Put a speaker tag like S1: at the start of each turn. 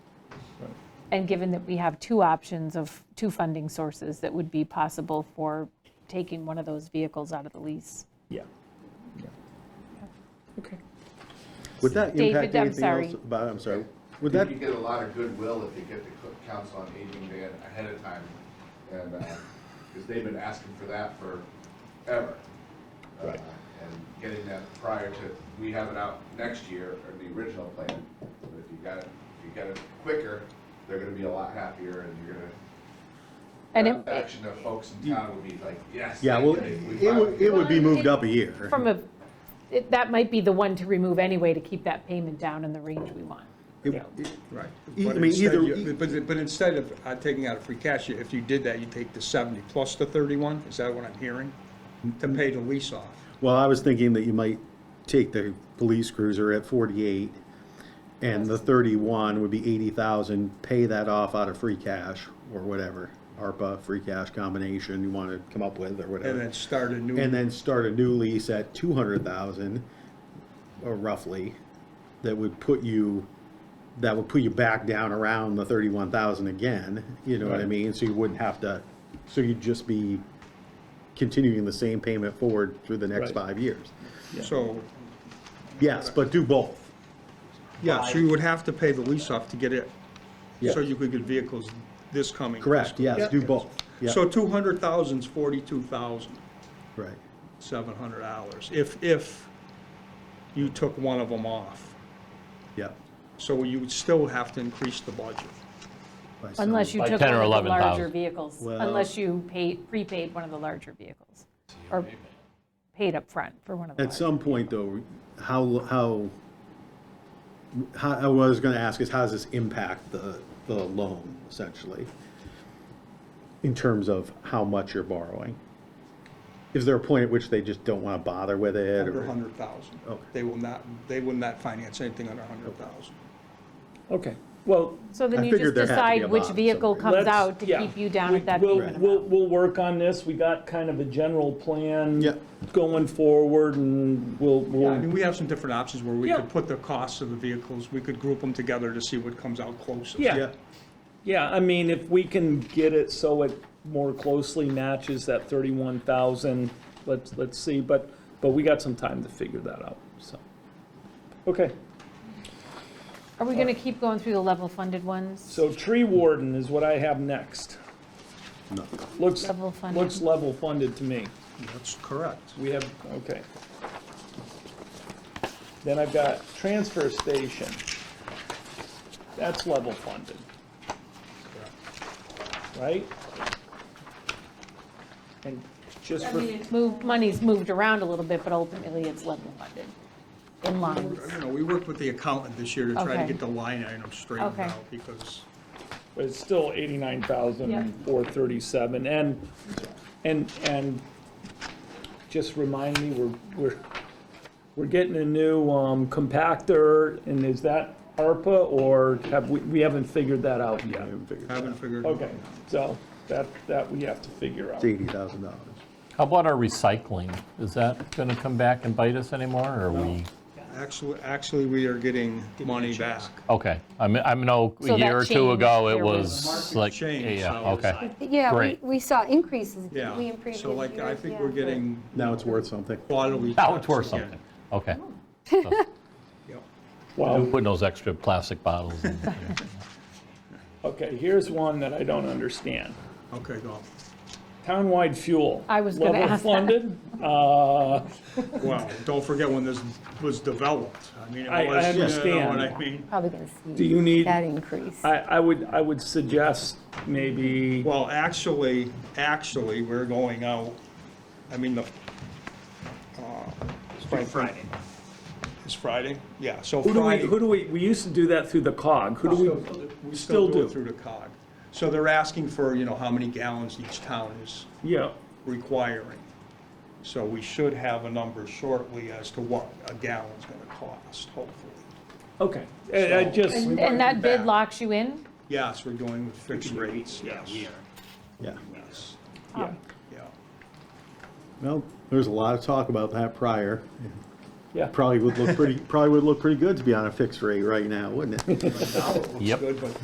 S1: And given that we have two options of, two funding sources that would be possible for taking one of those vehicles out of the lease.
S2: Yeah.
S3: Okay.
S4: Would that
S1: David,
S4: impact
S1: I'm
S4: anything
S1: sorry.
S4: else? Bob, I'm sorry. Would
S5: You
S4: that,
S5: could get a lot of goodwill if you get the co- council on aging ban ahead of time, and, because they've been asking for that forever. Uh,
S2: Right.
S5: And getting that prior to, we have it out next year, or the original plan, but if you got it, if you got it quicker, they're gonna be a lot happier, and you're gonna,
S1: And
S4: Uh,
S5: that
S1: it-
S5: action of folks in town would be like, yes.
S4: yeah, well,
S5: they did We
S4: it would,
S5: finally-
S4: it would be moved up a year.
S1: from a, it- that might be the one to remove anyway to keep that payment down in the range we want.
S4: It-
S1: Yeah.
S4: it-
S3: Right.
S4: E- I
S3: But
S4: mean,
S3: instead
S4: either-
S3: you- But, but instead of uh, taking out a free cash, if you did that, you take the 70 plus the 31, is that what I'm hearing? To pay the lease off.
S4: Well, I was thinking that you might take the police cruiser at 48, and the 31 would be 80,000, pay that off out of free cash or whatever, ARPA, free cash combination you want to come up with or
S3: And
S4: whatever.
S3: then start a new.
S2: Mm-hmm.
S4: And then start a new lease at 200,000, or uh, roughly, that would put you, that would put you back down around the 31,000 again, you know what I
S2: Right.
S4: mean? So you wouldn't have to, so you'd just be continuing the same payment forward through the next
S2: Right.
S4: five years.
S3: So,
S4: Yes, but do both.
S3: yeah, so you would have to pay the lease off to get it,
S4: Yeah.
S3: so you could get vehicles this coming.
S4: Correct,
S3: fiscal
S4: yes,
S3: year.
S4: do both. Yeah,
S3: So 200,000 is 42,700
S4: right.
S3: dollars, if, if you took one of them off.
S4: Yeah.
S3: So you would still have to increase the budget.
S4: by some-
S1: Unless you
S6: Like
S1: took
S6: 10
S1: one
S6: or
S1: of the
S6: 11,000.
S1: larger vehicles,
S4: Well-
S1: unless you paid, prepaid one of the larger vehicles, or paid up front for one of the
S4: At
S1: larger.
S4: some point, though, how, how, how, I was gonna ask is, how does this impact the, the loan, essentially? In terms of how much you're borrowing? Is there a point at which they just don't wanna bother with it,
S3: Under
S4: or,
S3: 100,000.
S4: Okay.
S3: They will not, they will not finance anything under 100,000.
S2: Okay, well,
S1: So then
S4: I
S1: you
S4: figured
S1: just
S4: there had to be a
S1: decide which
S4: bottom
S1: vehicle
S4: somewhere.
S1: comes
S2: let's-
S1: out to
S2: yeah,
S1: keep you down
S2: we-
S1: at that
S2: we'll-
S1: payment
S2: We'll,
S1: amount.
S2: we'll work on this, we got kind of a general plan
S4: Yeah.
S2: going forward, and we'll,
S3: I
S2: we'll,
S3: mean, we have some different options where we
S2: Yeah.
S3: could put the costs of the vehicles, we could group them together to see what comes out closest.
S2: yeah,
S4: Yeah.
S2: yeah, I mean, if we can get it so it more closely matches that thirty-one thousand, let's, let's see, but, but we got some time to figure that out, so. Okay,
S1: Are we going to keep going through the level funded ones?
S2: so tree warden is what I have next.
S4: No.
S2: Looks,
S1: Level funded.
S2: looks level funded to me.
S3: That's correct.
S2: We have, okay. Then I've got transfer station. That's level funded. Right? And just
S1: I
S2: for,
S1: mean, it's moved, money's moved around a little bit, but ultimately it's level funded in lines.
S3: You know, we worked with the accountant this year to try to
S1: Okay.
S3: get the line item straightened
S1: Okay.
S3: out because
S2: but it's still eighty-nine thousand four thirty-seven, and, and, and just remind me, we're, we're, we're getting a new, um, compactor, and is that ARPA, or have we, we haven't figured that out yet?
S3: I haven't figured. it out.
S2: Okay, so that, that we have to figure out.
S4: it's eighty thousand dollars?
S6: How about our recycling? Is that going to come back and bite us anymore, or are we?
S3: Actually, actually, we are getting money back.
S6: Okay, I mean, I know
S1: So
S6: a
S1: that
S6: year or two
S1: changed.
S6: ago, it
S1: There
S6: was
S1: was-
S6: like,
S3: Changed,
S6: yeah,
S3: so-
S6: okay.
S7: Yeah, we,
S6: Great.
S7: we saw increases, didn't we,
S3: Yeah,
S7: in previous years?
S3: so like, I think
S7: Yeah.
S3: we're getting
S4: Now it's worth something.
S3: quarterly.
S6: Now it's worth
S3: checks again.
S6: something. Okay.
S3: Yep.
S2: Wow,
S6: Putting those extra plastic bottles in. yeah.
S2: okay, here's one that I don't understand.
S3: Okay, go.
S2: Townwide fuel.
S1: I was gonna ask that.
S2: Level funded, uh,
S3: Well, don't forget when this was developed. I mean, it
S2: I- I
S3: was, you know
S2: understand.
S3: what I mean?
S7: Probably going
S2: do
S7: to
S2: you
S7: see
S2: need,
S7: that
S2: I,
S7: increase.
S2: I would, I would suggest maybe,
S3: Well, actually, actually, we're going out, I mean, the. It's Friday. It's Friday? Yeah, so
S2: who do we,
S3: Friday.
S2: who do we, we used to do that through the cog, who do we?
S3: We still
S2: still
S3: do
S2: do?
S3: it through the cog. So they're asking for, you know, how many gallons each town is
S2: Yeah,
S3: requiring. So we should have a number shortly as to what a gallon's gonna cost, hopefully.
S2: okay, I I just,
S3: We
S1: And
S3: might
S1: that
S3: be
S1: bid
S3: back.
S1: locks you in?
S3: Yes, we're going with fixed rates, yes. Yeah,
S4: Yeah.
S3: Yes,
S1: um,
S2: yeah,
S3: yeah.
S4: Well, there's a lot of talk about that prior.
S2: yeah.
S4: Probably would look pretty, probably would look pretty good to be on a fixed rate right now, wouldn't it?
S3: Now it looks
S6: Yep.
S3: good, but